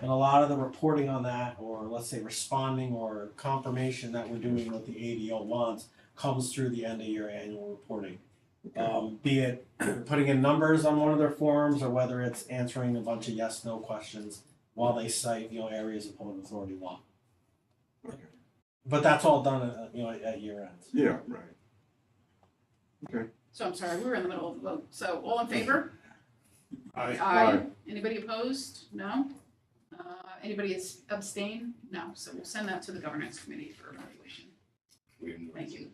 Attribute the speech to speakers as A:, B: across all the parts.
A: And a lot of the reporting on that, or let's say responding or confirmation that we're doing what the ADO wants, comes through the end of year annual reporting. Um, be it putting in numbers on one of their forms, or whether it's answering a bunch of yes, no questions while they cite, you know, areas of public authority law. But that's all done, at, you know, at year end.
B: Yeah, right.
C: So I'm sorry, we were in the middle of a vote. So all in favor?
D: Aye.
C: Anybody opposed? No? Uh, Anybody is- abstain? No. So we'll send that to the governance committee for evaluation. Thank you.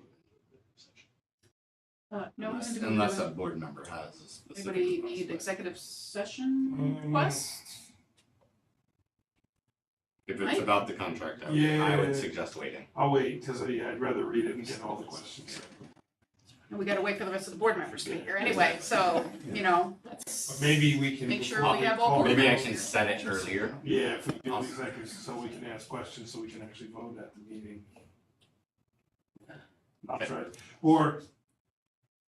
C: Uh, No,
E: Unless,
C: do we
E: unless
C: have-
E: a board member has a specific.
C: anybody
E: request,
C: need
E: but
C: executive session request?
E: If it's
C: I-
E: about the contract, I would, I would
D: Yeah.
E: suggest waiting.
D: I'll wait, because I'd rather read it and get all the questions.
C: And we gotta wait for the rest of the board members to be here anyway, so, you know,
D: But
C: let's,
D: maybe we can.
C: Make sure we have all
D: call-
C: board
E: Maybe I
C: members.
E: can set it earlier.
D: Yeah, if we do executive, so we can ask questions, so we can actually vote at the meeting. I'll try, or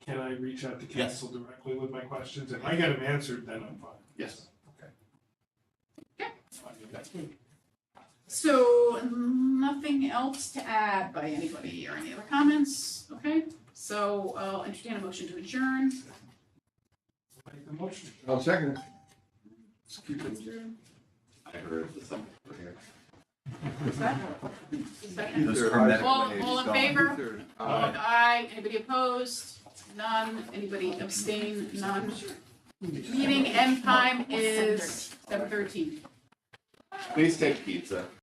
D: can I reach out to
E: Yes.
D: council directly with my questions? If I get them answered, then I'm fine.
E: Yes.
C: Okay.
D: Okay.
C: so nothing else to add by anybody or any other comments, okay? So I'll entertain a motion to adjourn.
D: Make the motion.
B: I'll second it.
E: I heard something over here.
C: Is that? Is that-
B: Those
F: Those
B: hermetic
F: hermetic
C: All- all in favor?
B: Two-thirds.
C: All in aye, anybody opposed? None, anybody abstain? None. Meeting end time is seven thirteen.
E: Please take pizza.